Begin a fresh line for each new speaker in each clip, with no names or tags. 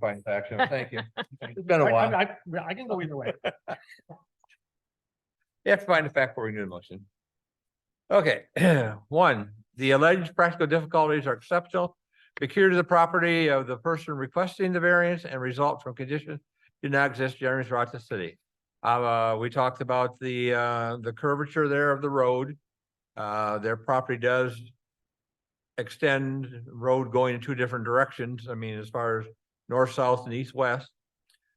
fighting back, so thank you. It's been a
I-
while.
I, I- I can go either way.
You have to find the fact for your motion. Okay, one, the alleged practical difficulties are exceptional, peculiar to the property of the person requesting the variance and result from conditions do not exist generally throughout the city. Uh, we talked about the, uh, the curvature there of the road. Uh, their property does extend road going in two different directions. I mean, as far as north, south and east, west.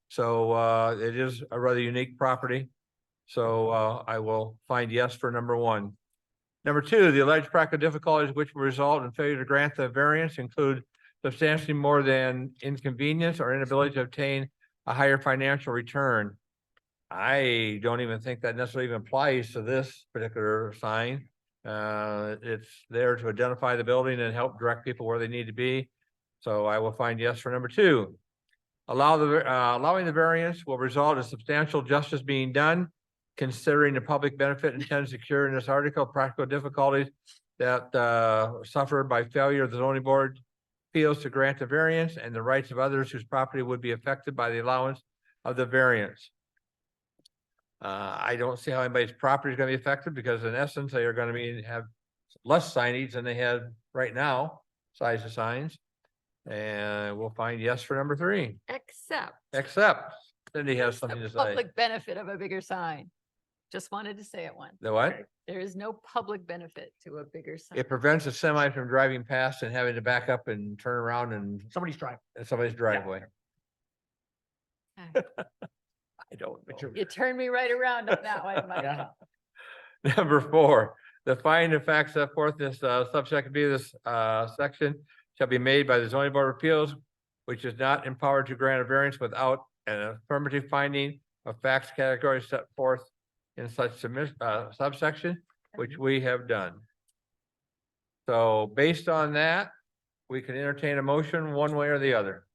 So, uh, it is a rather unique property. So uh, I will find yes for number one. Number two, the alleged practical difficulties which will result in failure to grant the variance include substantially more than inconvenience or inability to obtain a higher financial return. I don't even think that necessarily even applies to this particular sign. Uh, it's there to identify the building and help direct people where they need to be. So I will find yes for number two. Allow the, uh, allowing the variance will result in substantial justice being done considering the public benefit intended to secure in this article, practical difficulties that uh suffered by failure of the zoning board appeals to grant the variance and the rights of others whose property would be affected by the allowance of the variance. Uh, I don't see how anybody's property is gonna be affected because in essence, they are gonna be, have less signage than they had right now, size of signs. And we'll find yes for number three,
Except
except Cindy has something
the
to say.
public benefit of a bigger sign. Just wanted to say it once.
The what?
There is no public benefit to a bigger sign.
It prevents a semi from driving past and having to back up and turn around in
Somebody's driving.
in somebody's driveway.
Okay.
I don't
But
know.
you're-
Ah, You turned me right around on that one, Mike.
Yeah.
Number four, the finding of facts set forth in this uh, subsection B, of this uh, section shall be made by the zoning board of appeals, which is not empowered to grant a variance without an affirmative finding of facts category set forth in such submis- uh, subsection, which we have done. So based on that, we can entertain a motion one way or the other.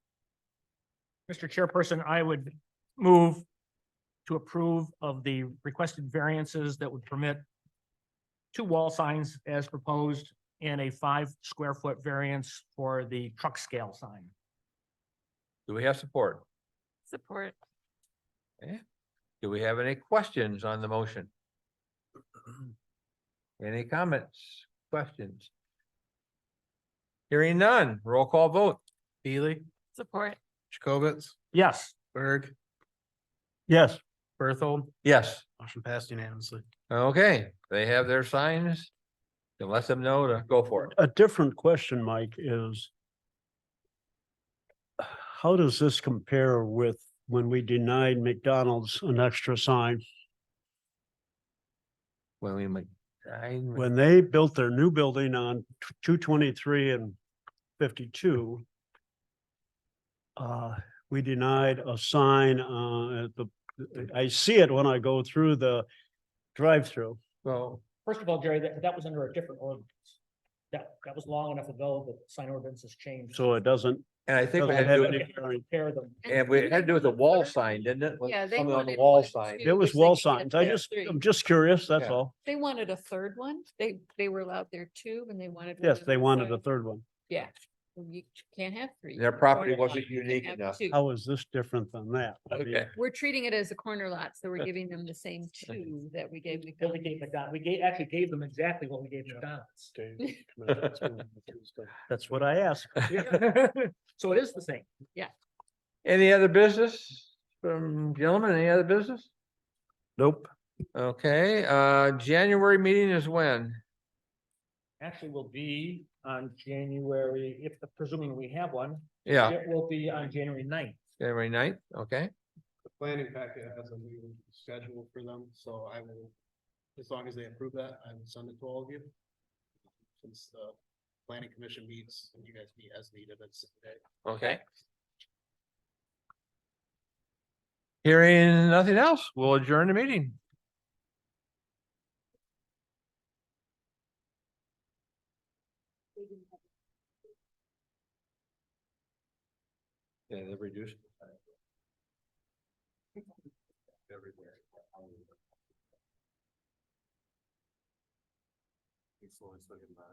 Mr. Chairperson, I would move to approve of the requested variances that would permit two wall signs as proposed and a five square foot variance for the truck scale sign.
Do we have support?
Support.
Do we have any questions on the motion? Any comments, questions? Hearing none, roll call vote.
Beely,
Support.
Jacobitz,
Yes.
Berg,
Yes.
Berthold,
Yes,
motion passed unanimously.
okay, they have their signs. Then let them know to go for it.
A different question, Mike, is how does this compare with when we denied McDonald's an extra sign?
When we make. sign-
When they built their new building on two twenty-three and fifty-two, uh, we denied a sign, uh, at the, I see it when I go through the drive-through.
Well,
First of all, Jerry, that, that was under a different ordinance. That, that was long enough ago that sign ordinance has changed.
So it doesn't,
and I think we
doesn't
had to,
have
do
any
it-
bearing.
Compare them.
and we had to do with the wall sign, didn't it? With
Yeah, they
Something on the
wanted
wall
one,
sign.
two.
It was
Which they
wall
can't
signs. I
do.
just,
Three.
I'm just curious, that's
Yeah.
all.
They wanted a third one. They, they were allowed their two and they wanted. one
Yes,
of
they
the
wanted a
sides.
third one.
Yeah. Well, You can't have three.
Their
You're a
property
corner
wasn't
lot. You can
unique
have
enough.
two.
How is this different than that? I mean,
Okay,
We're treating it as a corner lot, so we're giving them the same two that we gave
That we gave
McDonald's.
McDonald, we gave, actually gave them exactly what we gave McDonald's.
That's what I asked.
So it is the same.
any other business? From gentlemen, any other business?
Nope.
Okay, uh, January meeting is when?
actually will be on January, if presuming we have one,
Yeah,
it will be on January 9th.
January ninth, okay,
The planning packet has a new schedule for them, so I will, as long as they approve that, I will send it to all of you. Since the planning commission meets and you guys meet as needed, it's today.
okay. Hearing nothing else, we'll adjourn the meeting. Yeah, they've reduced.
everywhere. Influence looking back.